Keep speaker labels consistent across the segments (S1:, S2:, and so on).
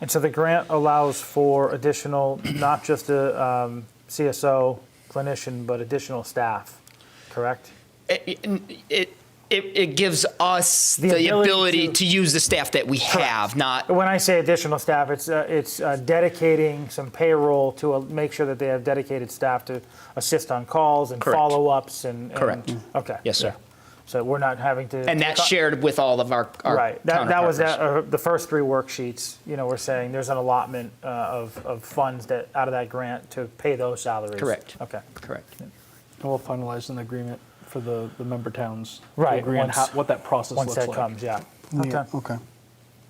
S1: And so the grant allows for additional, not just a um, CSO clinician, but additional staff, correct?
S2: It, it, it, it gives us
S1: The
S2: the,
S1: ability
S2: ability,
S1: to-
S2: to, use the staff that we have, not
S1: When I say additional staff, it's, uh, it's uh, dedicating some payroll to uh, make sure that they have dedicated staff to assist on calls and
S2: Correct.
S1: follow-ups and. and-
S2: Correct.
S1: Okay.
S2: Yes, sir.
S1: So we're not having to.
S2: and that's shared with all of our, our
S1: Right. That, that was that,
S2: counterpartners.
S1: uh, the first three worksheets, you know, we're saying there's an allotment uh, of, of funds that, out of that grant to pay those salaries.
S2: Correct.
S1: Okay.
S2: correct.
S3: And we'll finalize an agreement for the, the member towns. to
S1: Right,
S3: agree on
S1: once-
S3: how- What that process
S1: Once
S3: looks
S1: that
S3: like.
S1: comes, yeah.
S4: Yeah,
S1: Okay.
S4: Okay.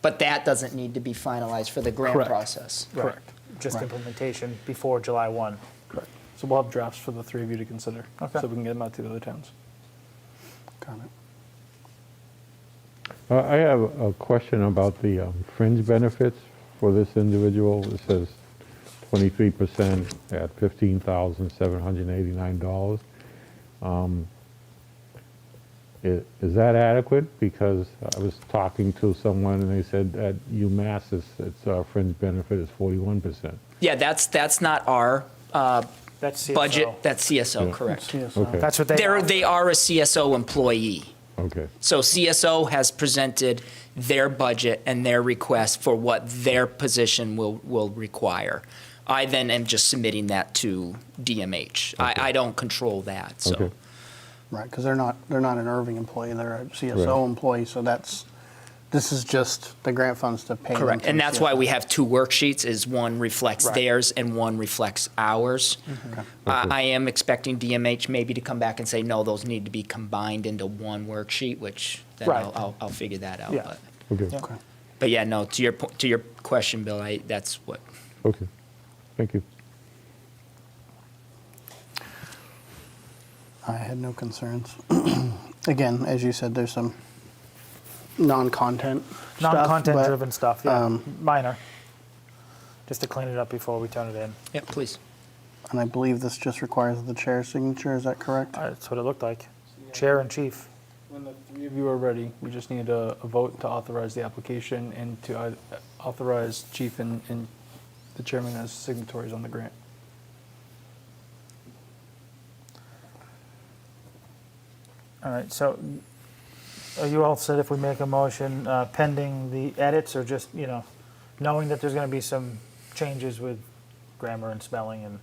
S2: But that doesn't need to be finalized for the grant
S3: Correct.
S2: process.
S3: Correct,
S1: Just
S4: Right.
S1: implementation before July 1.
S3: correct. So we'll have drafts for the three of you to consider.
S1: Okay.
S3: So we can get them out to the other towns.
S4: Got it.
S5: Uh, I have a question about the um, fringe benefits for this individual. It says 23% at $15,789. Um, i- Is that adequate? Because I was talking to someone and they said at UMass, it's- its uh, fringe benefit is 41%.
S2: Yeah, that's that's not our uh,
S1: That's CSO.
S2: budget. That's CSO, correct?
S3: Yes.
S4: Oh,
S5: Okay.
S1: That's what they.
S2: They're, they are a CSO employee.
S5: Okay,
S2: So CSO has presented their budget and their request for what their position will, will require. I then am just submitting that to DMH. I, I don't control that, so.
S5: Okay.
S4: Right, because they're not, they're not an Irving employee, they're a
S5: Right.
S4: CSO employee, so that's, this is just the grant funds to pay. them
S2: Correct,
S4: to
S2: and
S4: the
S2: that's
S4: CSO.
S2: why we have two worksheets, is one reflects
S4: Right.
S2: theirs and one reflects ours.
S4: Okay.
S2: I
S5: Okay.
S2: I am expecting DMH maybe to come back and say, no, those need to be combined into one worksheet, which then
S1: Right.
S2: I'll, I'll- I'll figure that out.
S1: Yeah.
S2: but-
S5: okay,
S4: Okay.
S2: But yeah, no, to your, po- to your question, Bill, I, that's what,
S5: okay. Thank you.
S4: I had no concerns. Again, as you said, there's some non-content stuff.
S1: Non-content
S4: but,
S1: driven stuff, yeah,
S4: um,
S1: minor. Just to clean it up before we turn it in.
S2: yeah, please.
S4: And I believe this just requires the chair's signature, is that correct?
S1: Uh, That's what it looked like. Chair and chief.
S3: When the three of you are ready, we just need a, a vote to authorize the application and to uh, authorize chief and, and the chairman as signatories on the grant.
S1: All right, so are you all said if we make a motion uh, pending the edits or just, you know, knowing that there's going to be some changes with grammar and spelling and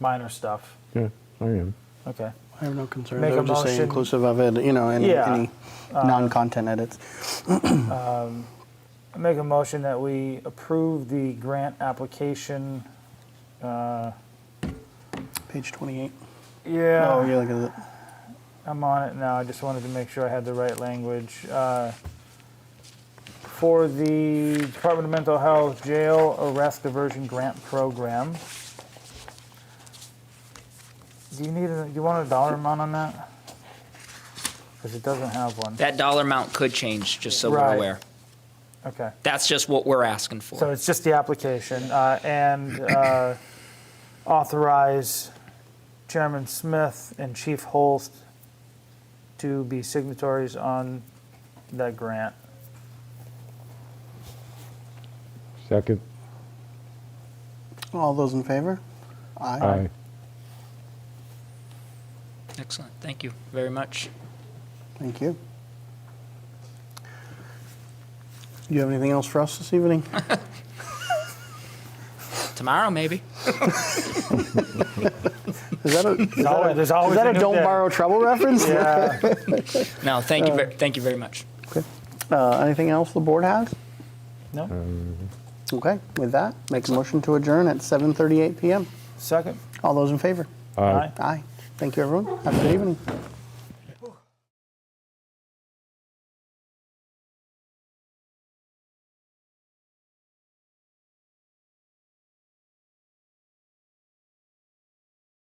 S1: minor stuff?
S5: Yeah, I am.
S1: Okay.
S4: I have no concerns,
S1: Make a
S4: I would just say
S1: motion.
S4: inclusive of it, you know, any,
S1: Yeah. Uh,
S4: any non-content edits.
S1: I make a motion that we approve the grant application.
S4: Page 28.
S1: Yeah.
S4: Oh, yeah, look at it.
S1: I'm on it now. I just wanted to make sure I had the right language. Uh, for the Department of Mental Health Jail Arrest Diversion Grant Program. Do you need? A, do you want a dollar amount on that? Because it doesn't have one.
S2: That dollar amount could change, just so
S1: Right.
S2: we're aware.
S1: Okay.
S2: That's just what we're asking
S1: So
S2: for.
S1: it's just the application uh, and uh, authorize Chairman Smith and Chief Holst to be signatories on that grant.
S5: Second,
S4: All those in favor? Aye.
S5: aye.
S2: Excellent, thank you very much.
S4: Thank you. Do you have anything else for us this evening?
S2: Tomorrow, maybe?
S4: Is that a, is that
S1: always-
S4: a-
S1: there's always
S4: is that
S1: a
S4: a
S1: new
S4: don't
S1: day.
S4: borrow trouble reference?
S1: Yeah.
S2: No, thank you, ver- thank you very much.
S4: Okay. Uh, anything else the board has?
S1: No?
S4: Okay, with that, make a motion to adjourn at 7:38 PM.
S1: Second?
S4: All those in favor?
S1: Aye.
S4: Aye. Thank you, everyone. Have a good evening.